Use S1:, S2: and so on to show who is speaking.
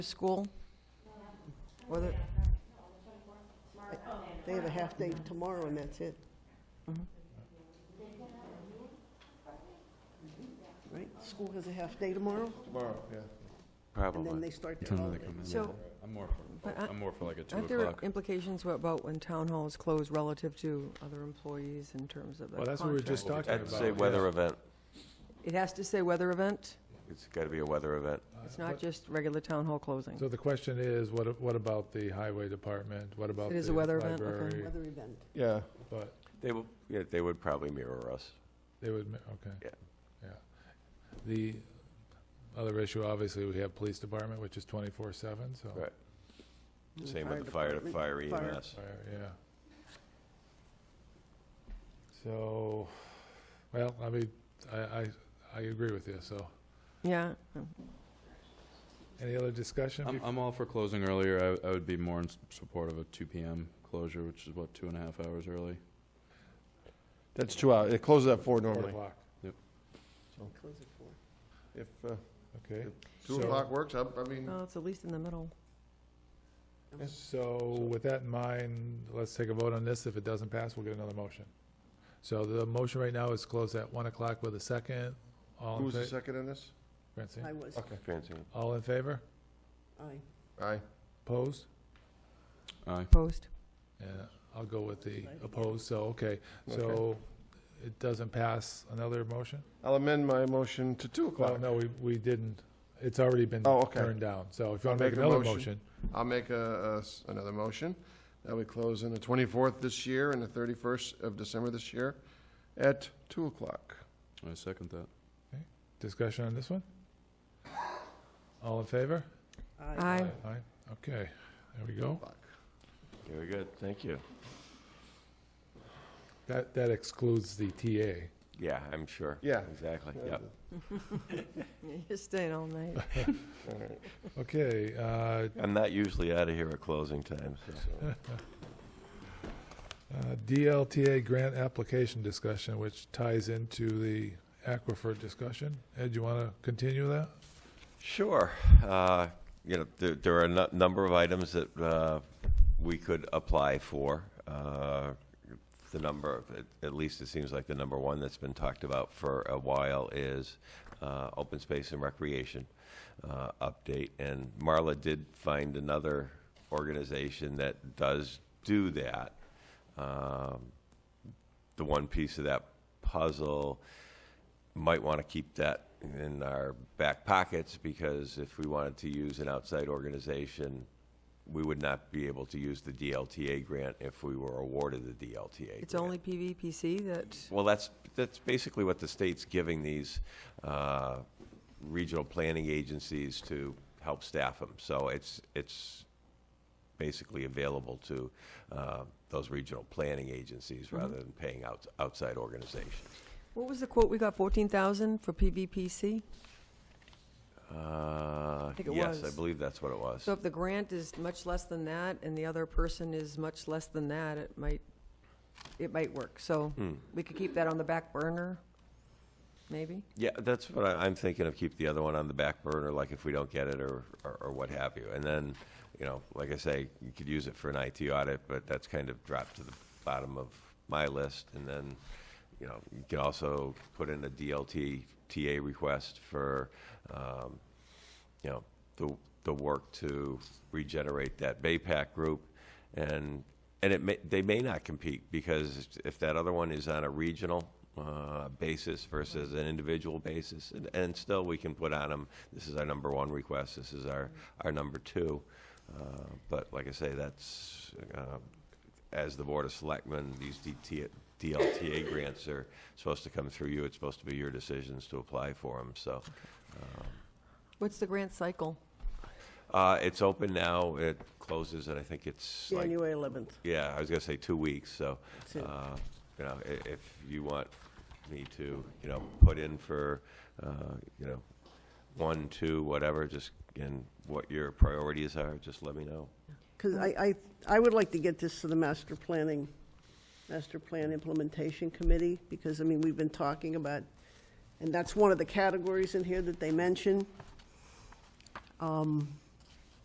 S1: School?
S2: Or they They have a half day tomorrow and that's it. Right, school has a half day tomorrow
S3: Tomorrow, yeah.
S2: and then they
S4: Probably.
S2: start their
S4: Time they
S2: holiday.
S4: come in.
S1: So,
S3: I'm more
S1: But
S3: for,
S1: I-
S3: I'm more for like a 2
S1: aren't there
S3: o'clock.
S1: implications about when town hall is closed relative to other employees in terms of the
S5: Well, that's what we were just
S1: contract?
S5: talking
S4: I'd
S5: about.
S4: say weather event.
S1: It has to say weather event?
S4: It's got to be a weather event.
S1: It's not just regular town hall closing?
S5: So the question is, what, what about the highway department? What about
S1: It is
S5: the
S1: a weather event, okay.
S5: library?
S2: Weather event.
S3: Yeah.
S5: But
S4: They will, yeah, they would probably mirror us.
S5: they would, ma- okay.
S4: Yeah.
S5: Yeah. The other issue, obviously, we have police department, which is twenty-four seven, so.
S4: Right. Same with the fire,
S2: department,
S4: fire E
S2: fire.
S4: EMS.
S5: Fire, Yeah. So, well, I mean, I, I, I agree with you, so.
S1: Yeah,
S5: Any other discussion?
S3: I'm,
S5: bef-
S3: I'm all for closing earlier. I, I would be more in s- support of a two PM closure, which is what, two and a half hours early?
S6: That's two hours. It closes at four
S5: Four
S6: normally.
S5: o'clock,
S2: Close at four.
S6: If uh,
S5: okay.
S6: two
S5: So-
S6: o'clock works, I I mean,
S1: oh, it's at least in the middle.
S5: So with that in mind, let's take a vote on this. If it doesn't pass, we'll get another motion. So the motion right now is closed at 1 o'clock with a second. All in
S6: who's the
S5: favor?
S6: second in this?
S2: I was,
S6: Okay,
S4: Transient.
S5: All in favor?
S2: aye.
S6: aye.
S5: Opposed?
S3: Aye.
S1: Opposed?
S5: And I'll go with the opposed, so, okay. So it doesn't pass another motion?
S6: I'll amend my motion to two
S5: Well,
S6: o'clock.
S5: no, we, we didn't. It's already been
S6: Oh, okay.
S5: turned down. So if you want to
S6: I'll make
S5: make
S6: a
S5: another motion,
S6: motion. I'll make a- a s- another motion that we close on the twenty-fourth this year and the thirty-first of December this year at two o'clock.
S3: I second that.
S5: discussion on this one? All in favor?
S1: Aye.
S5: Aye, okay, there we go.
S4: Very good, thank you.
S5: That, that excludes the TA.
S4: Yeah, I'm sure.
S6: Yeah.
S4: Exactly,
S6: Uh,
S4: yeah.
S1: You're staying all night.
S6: all right.
S5: Okay, uh,
S4: I'm not usually out of here at closing time, so.
S5: Uh, DLTA grant application discussion, which ties into the aquifer discussion. Ed, you want to continue that?
S4: Sure. Uh, You know, there- there are a nu- number of items that uh, we could apply for. Uh, The number, at- at least it seems like the number one that's been talked about for a while is uh, open space and recreation uh, update. And Marla did find another organization that does do that. Um, The one piece of that puzzle might want to keep that in our back pockets because if we wanted to use an outside organization, we would not be able to use the DLTA grant if we were awarded the DLTA grant.
S1: It's only PVPC that,
S4: Well, that's, that's basically what the state's giving these uh, regional planning agencies to help staff them. So it's, it's basically available to uh, those regional planning
S1: Mm-hmm.
S4: agencies rather than paying out outside organizations.
S1: what was the quote we got, 14,000 for PVPC?
S4: Uh,
S1: think it
S4: Yes, I
S1: was.
S4: believe that's what it was.
S1: So if the grant is much less than that, and the other person is much less than that, it might, it might work. So
S4: Hmm.
S1: we could keep that on the back burner, maybe?
S4: Yeah, that's what I, I'm thinking of, keep the other one on the back burner, like if we don't get it or, or, or what have you. And then, you know, like I say, you could use it for an IT audit, but that's kind of dropped to the bottom of my list. And then, you know, you can also put in a DLT, TA request for, um, you know, the, the work to regenerate that BayPAC group. And, and it may, they may not compete because if that other one is on a regional uh, basis versus an individual basis, and, and still we can put on them, this is our number one request, this is our, our number two. Uh, But like I say, that's, uh, as the Board of Selectmen, these DT DLTA grants are supposed to come through you. It's supposed to be your decisions to apply for them, so.
S1: What's the grant cycle?
S4: Uh, it's open now, it closes, and I think it's like,
S2: January eleventh.
S4: yeah, I was gonna say two weeks, so,
S2: That's it.
S4: uh, you know, i- if you want me to, you know, put in for, uh, you know, one, two, whatever, just, and what your priorities are, just let me know.
S2: Because I, I, I would like to get this to the master planning, master plan implementation committee, because, I mean, we've been talking about, and that's one of the categories in here that they mention. Um,